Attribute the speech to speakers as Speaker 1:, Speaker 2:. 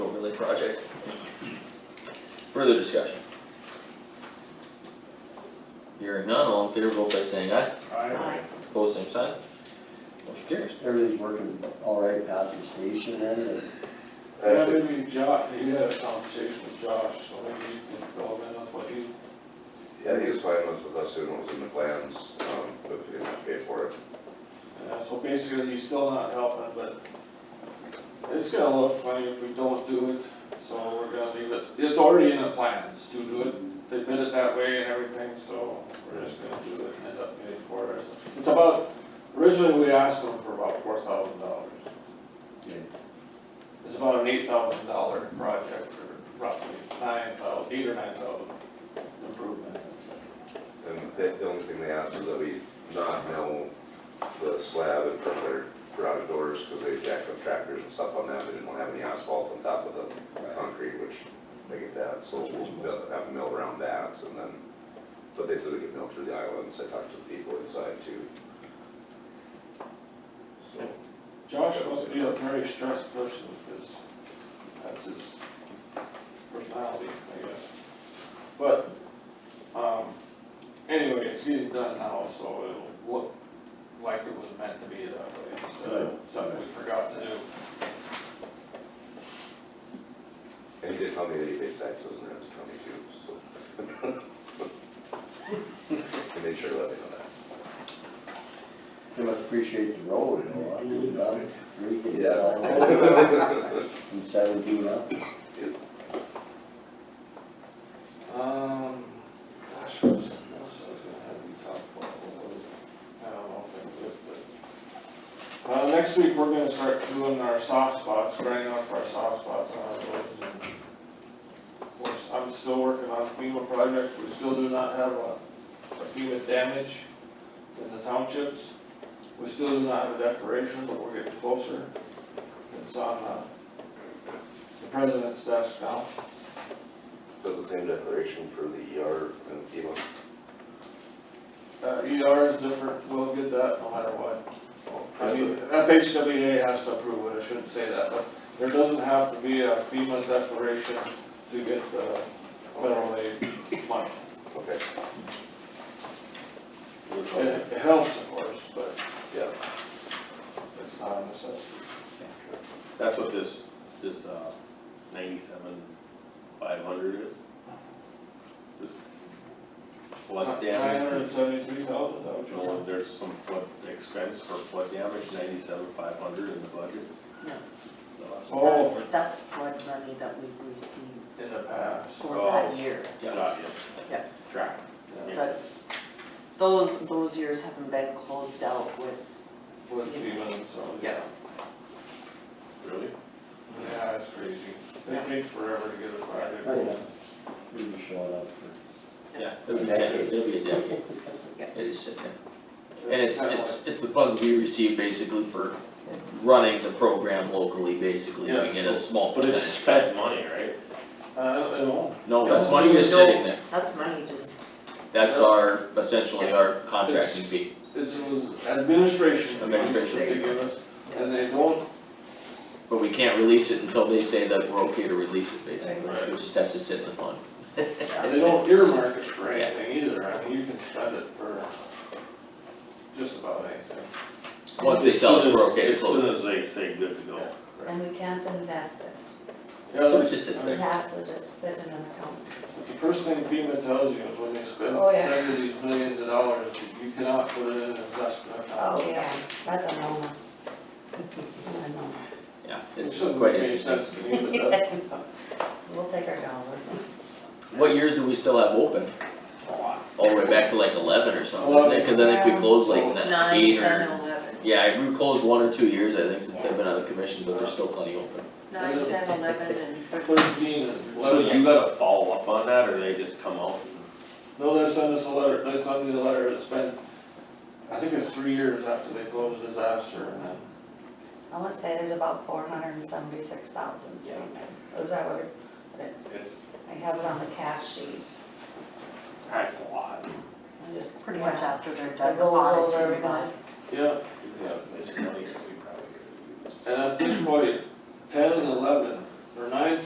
Speaker 1: project. Further discussion? Hearing none, all in favor, vote by saying aye.
Speaker 2: Aye.
Speaker 1: Opposed, same sign. Motion carries.
Speaker 3: Everything's working all right past the station end and
Speaker 2: Yeah, maybe Josh, he had a conversation with Josh, so maybe he can fill him in on what he,
Speaker 4: Yeah, he was fine with, with us doing what was in the plans, um, but if you didn't have to pay for it.
Speaker 2: yeah, Uh, so basically he's still not helping, but it's gonna look funny if we don't do it, so we're gonna leave it, it's already in the plans to do it. They bid it that way and everything, so we're just gonna do it and end up paying for it. It's about, originally we asked them for about four thousand dollars. It's about an eight thousand dollar project, or roughly nine thousand, eight or nine thousand improvement.
Speaker 4: And the, the only thing they asked is that we not mill the slab in front of their garage doors, cause they jacked up tractors and stuff on that, they didn't wanna have any asphalt on top of the concrete, which they get that, so we'll mill- have a mill around that, and then, but they said we could mill through the islands, I talked to the people inside too. So,
Speaker 2: Josh must be a very stressed person, because that's his personality, I guess. But, um, anyway, it's getting done now, so it'll look like it was meant to be that way, instead of something we forgot to do.
Speaker 4: and he did tell me that he pays taxes in Ramsey County too, so. I made sure to let me know that.
Speaker 3: they must appreciate the road, you know, I do love it. Freaking all the way
Speaker 4: Yeah.
Speaker 3: From seventeen up.
Speaker 2: Um, gosh, what was, what else I was gonna have you talk about, what was it? I don't know if I could, but. Uh, next week, we're gonna start doing our soft spots, grinding up our soft spots on our roads and. Of course, I'm still working on FEMA projects, we still do not have a a FEMA damage in the townships. We still do not have a declaration, but we're getting closer. It's on, uh, the president's desk now.
Speaker 4: Does the same declaration for the ER and FEMA?
Speaker 2: Uh, ER is different, we'll get that no matter what. I mean, FHWA has to approve it, I shouldn't say that, but there doesn't have to be a FEMA declaration to get the federal aid money.
Speaker 4: Okay,
Speaker 2: It it helps, of course, but
Speaker 4: yeah.
Speaker 2: it's not a necessity.
Speaker 5: That's what this, this, uh, ninety-seven, five hundred is? This Flood
Speaker 2: Nine hundred and
Speaker 5: damage,
Speaker 2: seventy-three thousand, that what you
Speaker 5: no, there's some flood expense for flood damage, ninety-seven, five hundred in the budget.
Speaker 6: No.
Speaker 5: No,
Speaker 2: Oh,
Speaker 6: That's, that's flood money that we've received
Speaker 2: in the past,
Speaker 6: for
Speaker 5: Oh.
Speaker 6: that year.
Speaker 5: that's Not yet.
Speaker 6: Yeah.
Speaker 5: Track.
Speaker 2: Yeah.
Speaker 6: That's, those, those years haven't been closed out with,
Speaker 2: with FEMA and so, yeah.
Speaker 6: Yeah.
Speaker 5: Really?
Speaker 2: Yeah, it's crazy.
Speaker 6: Yeah.
Speaker 2: It takes forever to get a project.
Speaker 3: Oh, yeah. We were showing up for.
Speaker 1: Yeah, it'll be a decade, it'll be a decade.
Speaker 6: Yeah.
Speaker 1: It is sitting there. And it's, it's, it's the funds we receive basically for running the program locally, basically, we get a small
Speaker 5: But it's
Speaker 1: percentage.
Speaker 5: spent money, right?
Speaker 2: I don't know.
Speaker 1: No, that's money that's sitting there,
Speaker 6: that's money just,
Speaker 1: that's our, essentially our contracting fee.
Speaker 2: This was administration funds that
Speaker 1: Administration.
Speaker 2: they give us, and they don't,
Speaker 1: But we can't release it until they say that we're okay to release it, basically,
Speaker 5: Right.
Speaker 1: so it just has to sit in the fund.
Speaker 2: they don't earmark it for anything either, I mean, you can spend it for just about anything.
Speaker 1: Once they tell us we're okay to
Speaker 5: As soon
Speaker 1: close it.
Speaker 5: as they say good to go.
Speaker 7: And we can't invest it,
Speaker 1: So it just sits
Speaker 7: it
Speaker 1: there.
Speaker 7: has to just sit in an account.
Speaker 2: The first thing FEMA tells you is when they spend,
Speaker 7: Oh, yeah.
Speaker 2: send you these millions of dollars, you cannot put it in an investment account.
Speaker 7: Oh, yeah, that's a no-no. A no-no.
Speaker 1: Yeah,
Speaker 2: It
Speaker 1: it's
Speaker 2: shouldn't
Speaker 1: quite
Speaker 2: make any
Speaker 1: interesting.
Speaker 2: sense to me, but that-
Speaker 7: We'll take our dollar.
Speaker 1: What years do we still have open? All the way back to like eleven or something, isn't it? Cause I think we
Speaker 7: Eleven.
Speaker 1: closed like
Speaker 2: Yeah.
Speaker 1: nine,
Speaker 6: nine,
Speaker 1: eight or.
Speaker 6: ten, eleven.
Speaker 1: Yeah, we closed one or two years, I think, since I've been on the commission, but there's still plenty open.
Speaker 6: Nine, ten, eleven, and thirteen.
Speaker 2: thirteen and
Speaker 5: So you
Speaker 2: eleven,
Speaker 5: gotta follow up on that, or they just come out and
Speaker 2: no, they send us a letter, they send me a letter that's been, I think it's three years after they close disaster, and then
Speaker 7: I wanna say there's about four hundred and seventy-six thousand sitting there. Is that what, it-
Speaker 5: It's,
Speaker 7: I have it on the cash sheet.
Speaker 5: that's a lot.
Speaker 7: I just,
Speaker 6: Pretty much
Speaker 7: yeah.
Speaker 6: after they're
Speaker 7: It
Speaker 6: done
Speaker 7: goes over every
Speaker 6: auditing,
Speaker 7: month.
Speaker 6: but
Speaker 2: Yeah,
Speaker 5: Yeah, it's money that we probably could use.
Speaker 2: and at this point, ten and eleven, or nine,